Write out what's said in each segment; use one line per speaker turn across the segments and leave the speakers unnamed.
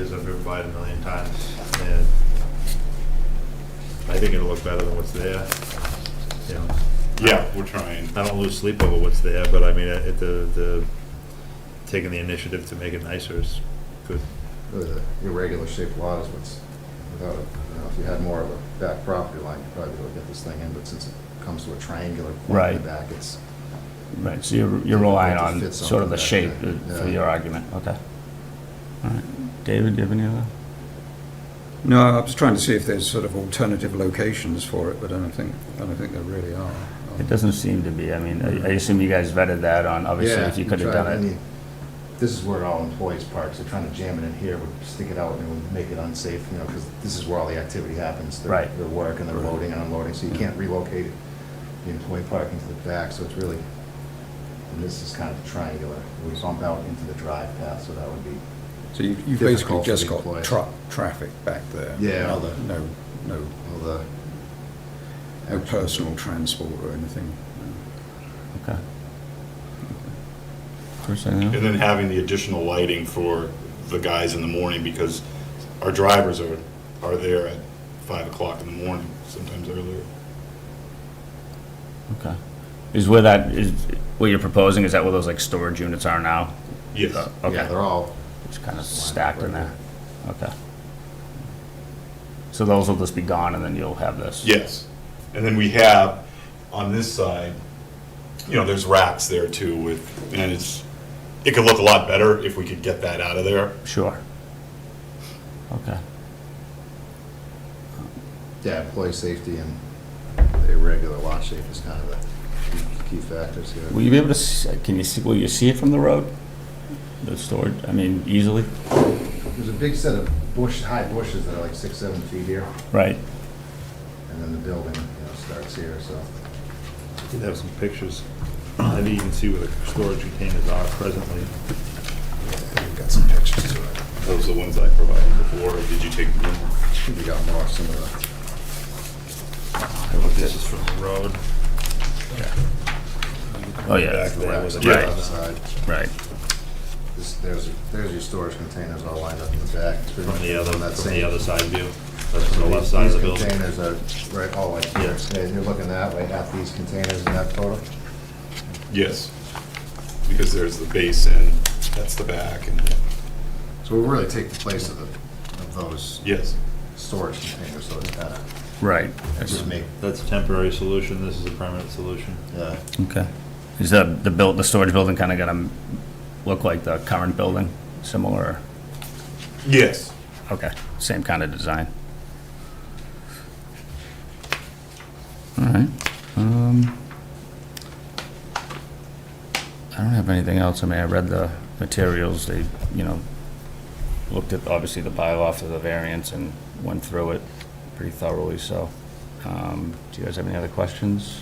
replied a million times, and I think it'll look better than what's there, you know.
Yeah, we're trying.
I don't lose sleep over what's there, but I mean, uh, it, the, the, taking the initiative to make it nicer is good.
Really, the irregular shaped lot is what's, without, a- you know, if you had more of a back property line, you probably would get this thing in, but since it comes to a triangular point in
Right.
the back, it's,
Right, so you're, you're relying
Like to
on
fit
sort of the
something
shape
back there.
uh, for
Yeah.
your argument, okay. All right, David, do you have any other?
No, I was trying to see if there's sort of alternative locations for it, but I don't think, I don't think there really are.
It doesn't seem to be, I mean, I I assume you guys vetted that on, obviously,
yeah.
if you
you
could have
try-
done
and
it.
you- This is where all employees park, so trying to jam it in here would stick it out and it would make it unsafe, you know, because this is where all the activity happens. their-
Right. Mm-hmm.
Their work and their loading and unloading, so you can't relocate the employee parking to the back, so it's really, and this is kind of triangular. We bump out into the drive path, so that would be
So you- you've basically
Difficult for
just
the
got
employer.
truck, traffic back there.
Yeah.
Other, no, no,
all the
no personal transport or anything. no.
Okay. Chris, anything else?
And then having the additional lighting for the guys in the morning because our drivers are, are there at five o'clock in the morning, sometimes earlier.
Okay. Is where that, is, what you're proposing, is that where those like storage units are now?
Yes.
Yeah,
Okay,
they're all,
it's kind of
Just lined up
stacked
right
in there, okay. So those will just be gone and then you'll have this?
Yes. And then we have, on this side, you know, there's racks there too with, and it's, it could look a lot better if we could get that out of there.
Sure. Okay.
yeah, employee safety and the irregular lot shape is kind of the key- key factors here.
Will you be able to, s- uh, can you see, will you see it from the road? The storage, I mean, easily?
There's a big set of bush, high bushes that are like six, seven feet here,
Right.
and then the building, you know, starts here, so.
Did have some pictures, maybe you can see where the storage containers are presently.
We've got some pictures to it.
Those are the ones I provided before, or did you take them?
We got more, some of
This is from the road.
Oh, yeah,
Back there was a-
the.
Right.
Outside.
right.
This- There's, there's your storage containers all lined up in the back. It's pretty
From the
much
other,
on that
from
same-
the other side view, that's from the left side of the
These
building.
Containers are right all like here.
Yes.
Yeah, you're looking that way, half these containers in that photo.
Yes. Because there's the basin, that's the back, and,
So we really take the place of the, of those
yes.
storage containers, so it's kind of,
Right.
just make,
That's a temporary solution, this is a permanent solution.
yeah.
Okay. Is the, the build, the storage building kind of going to look like the current building, similar?
Yes.
Okay, same kind of design. All right. um, I don't have anything else. I mean, I read the materials, they, you know, looked at, obviously, the bylaw for the variance and went through it pretty thoroughly, so. um, Do you guys have any other questions?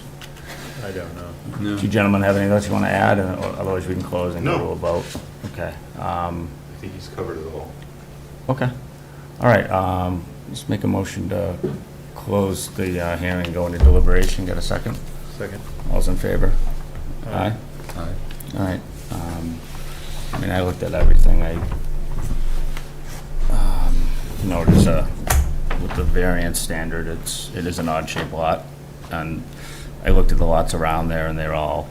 I don't know.
Do you gentlemen have anything else you want to add, and or otherwise we can close and go to
No.
a vote? Okay. um,
I think he's covered it all.
Okay. All right, um, let's make a motion to close the uh, hearing, go into deliberation, get a second.
Second.
All's in favor? Aye?
Aye.
All right. um, I mean, I looked at everything, I um, noticed uh, with the variance standard, it's, it is an odd-shaped lot, and I looked at the lots around there, and they're all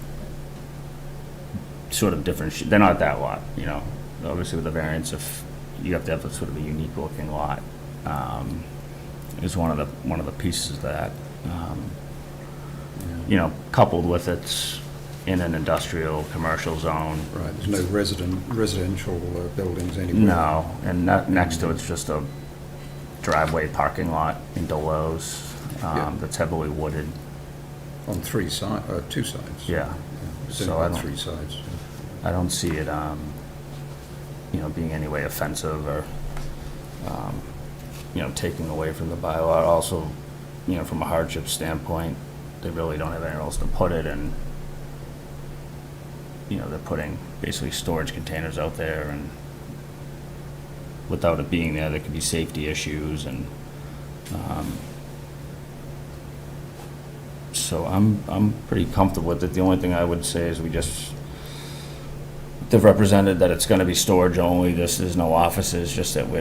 sort of different, sh- they're not that lot, you know? Obviously, with the variance, if, you have to have a sort of a unique-looking lot, um, is one of the, one of the pieces of that. um, You know, coupled with it's in an industrial, commercial zone,
Right, there's no resident, residential uh, buildings anywhere.
no, and ne- next to it's just a driveway parking lot into Lowe's
Yeah.
um, that's heavily wooded,
On three sides, uh, two sides.
yeah.
It's
So I
on
don't,
three sides.
I don't see it, um, you know, being any way offensive or, um, you know, taking away from the bylaw. Also, you know, from a hardship standpoint, they really don't have anywhere else to put it and, you know, they're putting basically storage containers out there and without it being there, there could be safety issues and, um, so I'm, I'm pretty comfortable with it. The only thing I would say is we just, they've represented that it's gonna be storage only, this, there's no offices, just that we're